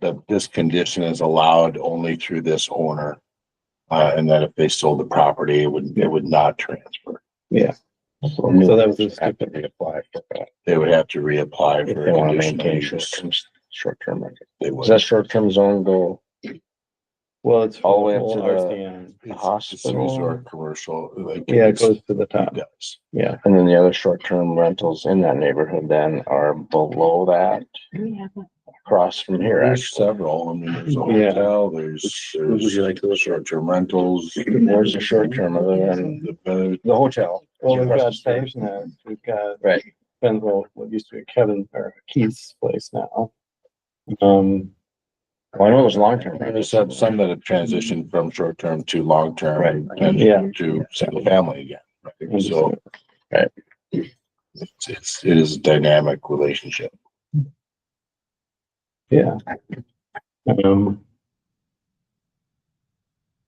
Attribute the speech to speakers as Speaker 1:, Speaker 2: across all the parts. Speaker 1: that this condition is allowed only through this owner. Uh, and that if they sold the property, it would, it would not transfer.
Speaker 2: Yeah.
Speaker 1: So new
Speaker 2: So that was the
Speaker 1: owners have to reapply for that. They would have to reapply
Speaker 2: If
Speaker 1: for.
Speaker 2: they
Speaker 1: a
Speaker 2: wanna
Speaker 1: conditional
Speaker 2: maintain
Speaker 1: use.
Speaker 2: short-term, short-term rental.
Speaker 1: They
Speaker 3: Does
Speaker 1: would.
Speaker 3: that short-term zone go?
Speaker 2: Well, it's.
Speaker 3: All the way up
Speaker 2: whole
Speaker 3: to the-
Speaker 2: RCN.
Speaker 1: Hospitals or
Speaker 3: Hospital,
Speaker 1: commercial. like,
Speaker 2: Yeah, it
Speaker 1: it's-
Speaker 2: goes to the top.
Speaker 1: Yes.
Speaker 2: Yeah.
Speaker 3: and then the other short-term rentals in that neighborhood then are below that, across from here,
Speaker 1: There's
Speaker 3: actually.
Speaker 1: several, I mean, there's a
Speaker 2: Yeah.
Speaker 1: hotel, there's, there's short-term rentals.
Speaker 3: Where's the short-term other than
Speaker 1: The bed,
Speaker 3: the hotel?
Speaker 2: Well, we've got
Speaker 3: Across the street.
Speaker 2: Dave's now, we've got.
Speaker 3: Right.
Speaker 2: Benville, what used to be Kevin or Keith's place now. Um,
Speaker 3: Well, I know it was long-term.
Speaker 1: And there's some, some that have
Speaker 2: Mm-hmm.
Speaker 1: transitioned from short-term to long-term.
Speaker 3: Right.
Speaker 1: and
Speaker 2: Yeah.
Speaker 1: To single-family again. right? So.
Speaker 3: Right.
Speaker 1: It's, it's, it is a dynamic relationship.
Speaker 2: yeah. Um,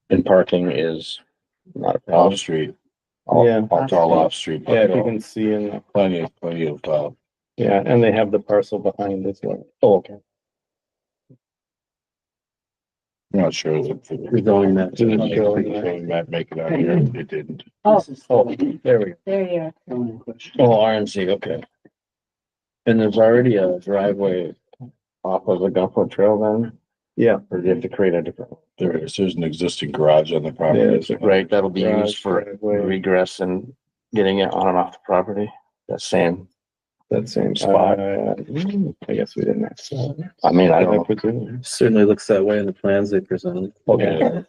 Speaker 3: And parking is not a problem.
Speaker 1: Off-street,
Speaker 3: All-
Speaker 2: yeah,
Speaker 1: it's all off-street.
Speaker 2: yeah, if you can see in, the-
Speaker 1: Plenty of, plenty of, uh,
Speaker 2: yeah, and they have the parcel behind as well.
Speaker 3: Oh, okay.
Speaker 1: I'm not sure if. We're
Speaker 2: Going that-
Speaker 1: Might make it out here, it didn't.
Speaker 4: Oh,
Speaker 3: Oh, there we go.
Speaker 4: there you are.
Speaker 3: Oh, RMC, okay. And there's already a driveway off of the Gulfport Trail then?
Speaker 2: Yeah.
Speaker 3: Or do you have to create a different?
Speaker 1: There is, there's an existing garage on the property.
Speaker 2: Yeah,
Speaker 1: isn't there?
Speaker 3: Right, that'll be used for
Speaker 2: Driveway,
Speaker 3: regress and getting it on and off the property, that same.
Speaker 2: That same
Speaker 3: spot.
Speaker 2: spot. I guess we didn't. actually-
Speaker 3: I mean, I
Speaker 2: I
Speaker 3: don't.
Speaker 2: put it in.
Speaker 5: Certainly looks that way in the plans they presented.
Speaker 3: Okay,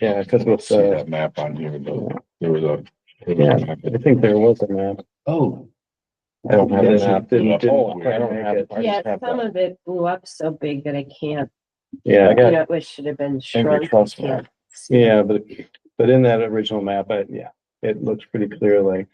Speaker 2: Yeah, because
Speaker 1: Let's
Speaker 2: with,
Speaker 1: see
Speaker 2: uh,
Speaker 1: that map on here, but there was a. there was a
Speaker 2: Yeah.
Speaker 1: map
Speaker 2: I
Speaker 1: that-
Speaker 2: think there was a map.
Speaker 5: Oh.
Speaker 3: I don't have
Speaker 2: Didn't-
Speaker 3: an app.
Speaker 2: didn't- didn't
Speaker 1: Oh,
Speaker 2: quite
Speaker 3: I don't
Speaker 2: make
Speaker 3: have
Speaker 2: it.
Speaker 3: it. I
Speaker 4: Yeah,
Speaker 3: just have
Speaker 4: some
Speaker 3: that.
Speaker 4: of it blew up so big that I can't,
Speaker 2: Yeah,
Speaker 3: I
Speaker 4: you
Speaker 3: got
Speaker 4: know, it should have been
Speaker 3: angry
Speaker 4: shrunk.
Speaker 3: trust map.
Speaker 2: yeah, but, but in that original map, I, yeah, it looks pretty clear, like.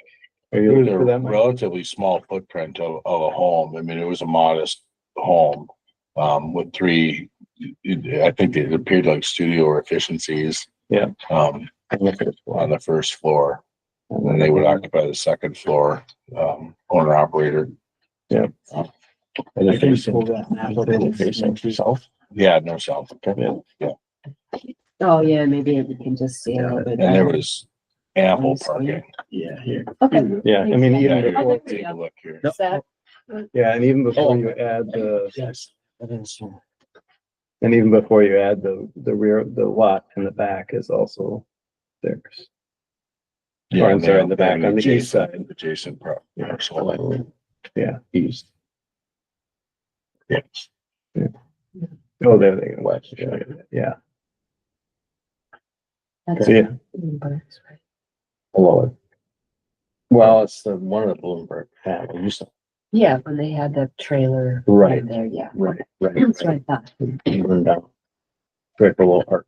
Speaker 2: Are
Speaker 1: It
Speaker 2: you
Speaker 1: was
Speaker 2: looking
Speaker 1: a
Speaker 2: for that? Mike?
Speaker 1: relatively small footprint of, of a home. I mean, it was a modest home. Um, with three, it- I think it appeared like studio or efficiencies.
Speaker 2: Yeah.
Speaker 1: Um,
Speaker 2: I'm looking
Speaker 1: on
Speaker 2: for
Speaker 1: the first floor, and then
Speaker 2: it.
Speaker 1: they would occupy the second floor, um, owner operator.
Speaker 2: Yeah.
Speaker 1: Um,
Speaker 3: Are they facing- are they facing
Speaker 2: Yeah,
Speaker 3: south?
Speaker 1: Yeah, no south.
Speaker 4: Oh, yeah, maybe we can just see a little bit.
Speaker 1: And there was ample parking.
Speaker 5: Yeah.
Speaker 4: Okay.
Speaker 2: I mean,
Speaker 1: Yeah,
Speaker 2: even
Speaker 1: here,
Speaker 2: before,
Speaker 1: Take a look here.
Speaker 4: Is that-
Speaker 2: yeah, and even before
Speaker 3: Oh.
Speaker 2: you add the,
Speaker 3: Yes. I didn't see.
Speaker 2: and even before you add the, the rear, the lot in the back is also theirs.
Speaker 1: Yeah,
Speaker 2: Or I'm
Speaker 1: and
Speaker 2: sorry,
Speaker 1: they-
Speaker 2: in the back,
Speaker 1: and
Speaker 2: on the east
Speaker 1: adjacent-
Speaker 2: side.
Speaker 1: Adjacent pro-
Speaker 2: Yeah.
Speaker 1: parcel.
Speaker 2: Yeah,
Speaker 3: East,
Speaker 1: Yes.
Speaker 2: oh, there they go,
Speaker 3: west. yeah.
Speaker 2: yeah,
Speaker 4: that's-
Speaker 2: so yeah,
Speaker 3: Hello. Well, it's the one of the Bloomberg family, you said.
Speaker 4: Yeah, when they had that trailer.
Speaker 3: Right.
Speaker 4: in There, yeah.
Speaker 3: Right,
Speaker 4: That's what I thought.
Speaker 3: Burn down. Right below Art.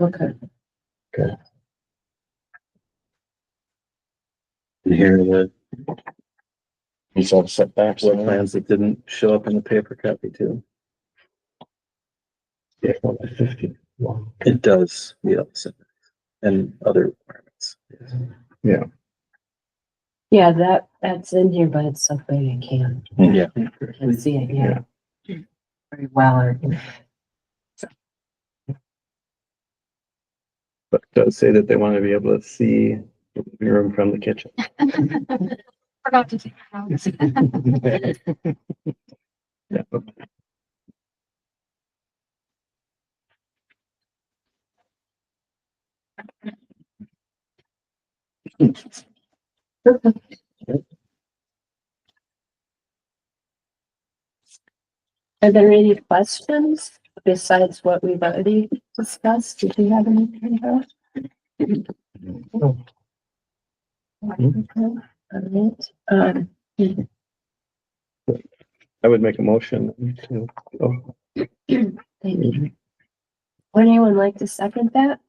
Speaker 4: Okay.
Speaker 5: And here are the
Speaker 3: You saw the setbacks.
Speaker 5: floor plans that didn't show up in the paper copy too.
Speaker 3: Yeah, well, the 50. Wow.
Speaker 5: It does, yeah, so- and other requirements.
Speaker 4: Yeah, that, that's in here, but it's so big I can't,
Speaker 5: Yeah.
Speaker 4: can't see it, yeah. Very well, or
Speaker 2: but it does say that they want to be able to see the living room from the kitchen.
Speaker 6: Forgot to take it out.
Speaker 2: Yeah.
Speaker 4: Are there any questions besides what we've already discussed? Did you have any? Kendra? Okay, all right, um,
Speaker 2: I would make a motion to, oh,
Speaker 4: thank you. Would anyone like to second that?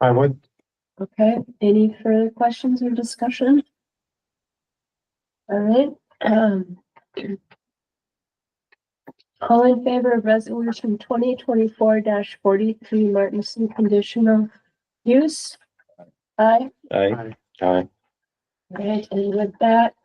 Speaker 3: I would.
Speaker 4: Okay, any further questions or discussion? All right, um. All in favor of resolution twenty twenty-four forty-three Martinson conditional use? Aye.
Speaker 2: I.
Speaker 3: Aye.
Speaker 4: Right, and with that,